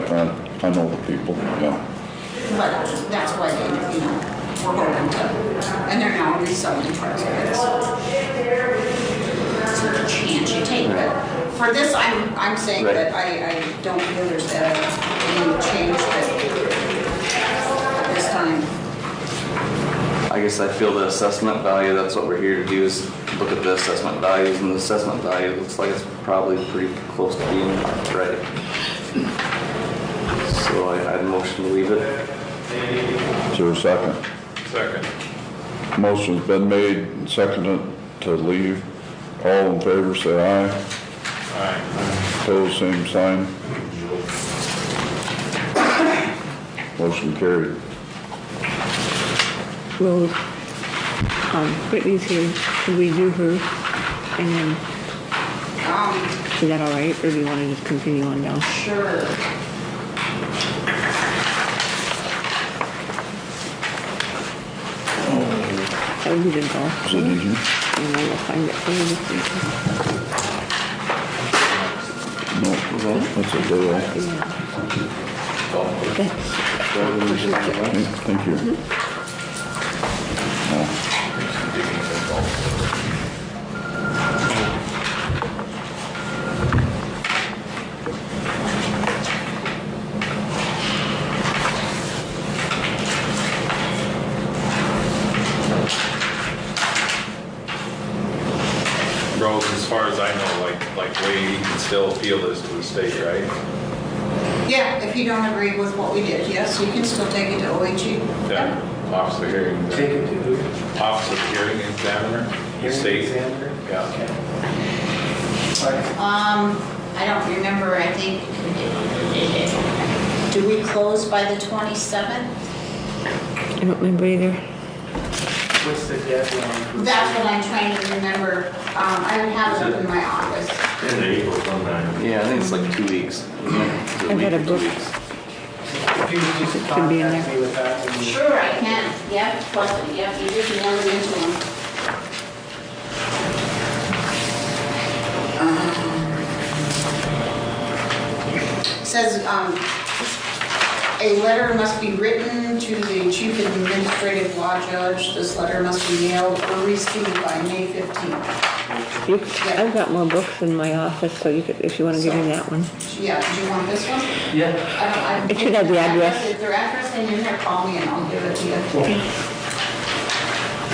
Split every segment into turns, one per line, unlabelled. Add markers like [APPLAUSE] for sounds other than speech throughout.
I know the people, yeah.
But that's what, you know, we're hoping to, and they're now reselling trucks with us. It's not a chance you take, but for this, I'm, I'm saying
Right.
that I, I don't feel there's that any change that this time.
I guess I feel the assessment value, that's what we're here to do, is look at the assessment values, and the assessment value looks like it's probably pretty close to being right. So I, I'd motion to leave it.
Is there a second?
Second.
Motion's been made and seconded to leave. All in favor, say aye. Aye. Pose same sign. Motion carried.
Well, um, Brittany's here, should we do her? And then,
Um,
is that all right, or do you want to just continue on down?
sure.
That would be the goal.
Is it
Mm-hmm.
easy?
And I will find it for you.
No, that's a deal. Okay, Thank you.
Mm-hmm.
Roads, as far as I know, like, like way you can still appeal this to the state, right?
Yeah, if you don't agree with what we did, yes, you can still take it to E. OHG.
Yeah. Officer hearing,
Take it to who?
officer hearing examiner, the
Hearing
state.
examiner?
Yeah.
Okay. All right.
Um, I don't remember, I think, do we close by the 27th?
I don't remember either.
What's the deadline? for-
That's what I'm trying to remember. Um, I would have it up in my office.
In April sometime.
Yeah, I think it's like two weeks. isn't it? Is it a
I've
week
got a
or two
book.
weeks?
If you could just
Should be in
contact me with that. and-
Sure, I can. Yep, plus, yep, you just nailed it into them. Uh-huh. Says, um, a letter must be written to the chief administrative law judge. This letter must be mailed or received by May 15th.
You, I've got more books in my office, so you could, if you want to give me that one.
Yeah, do you want this one?
Yeah.
I don't, I.
It should have the address.
If their address is in there, call me and I'll give it to you.
All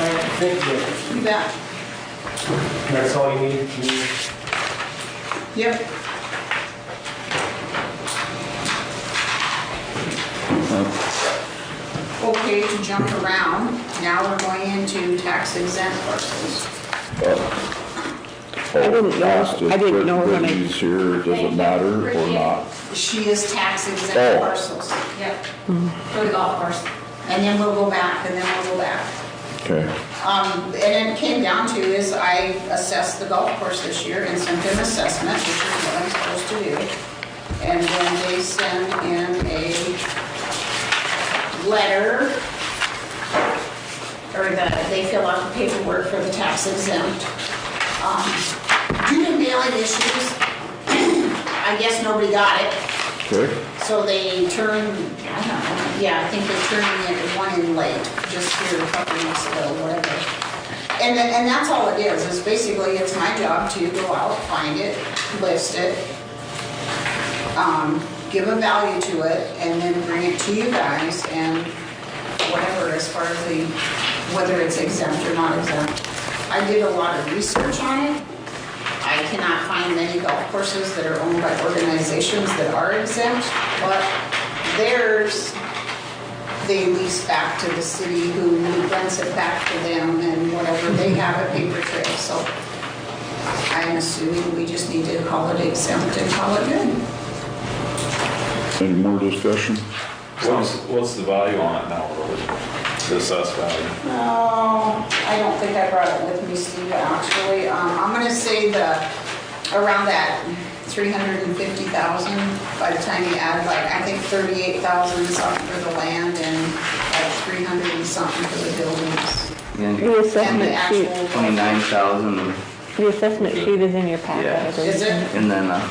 right, thank you.
You bet.
That's all you need? You need-
Yep. Okay, to jump around, now we're going into tax exempt parcels.
Uh, I
didn't know- I didn't know when I-
Brittany's here, does it matter or not?
She is tax
Oh.
exempt parcels. Yep. For the golf course. And then we'll go back, and then we'll go back.
Okay.
Um, and it came down to is I assessed the golf course this year and sent them assessment, which is what I'm supposed to do. And then they send in a letter, or the, they fill out the paperwork for the tax exempt. Um, Due to mailing issues, [CLEARS THROAT] I guess nobody got it.
Okay.
So they turned, I don't know, yeah, I think they turned in one in late, just here a couple weeks ago, whatever. And then, and that's all it is, is basically it's my job to go out, find it, list it, um, give a value to it, and then bring it to you guys and whatever as far as the, whether it's exempt or not exempt. I did a lot of research on it. I cannot find many golf courses that are owned by organizations that are exempt, but theirs, they lease back to the city who rents it back to them and whatever, they have a paper trail, so I'm assuming we just need to call it exempt and call it good.
Any more discussion?
What's, what's the value on it now, really? The assessed value?
No, I don't think I brought it with me, Steve, actually. Um, I'm gonna say the, around that 350,000 by the time you add like, I think 38,000 something for the land and like 300 and something for the buildings.
The
And
And
the
assessment sheet,
actual.
twenty-nine thousand,
the assessment sheet is in your packet. I
Yeah.
believe.
Is it?
and then, uh,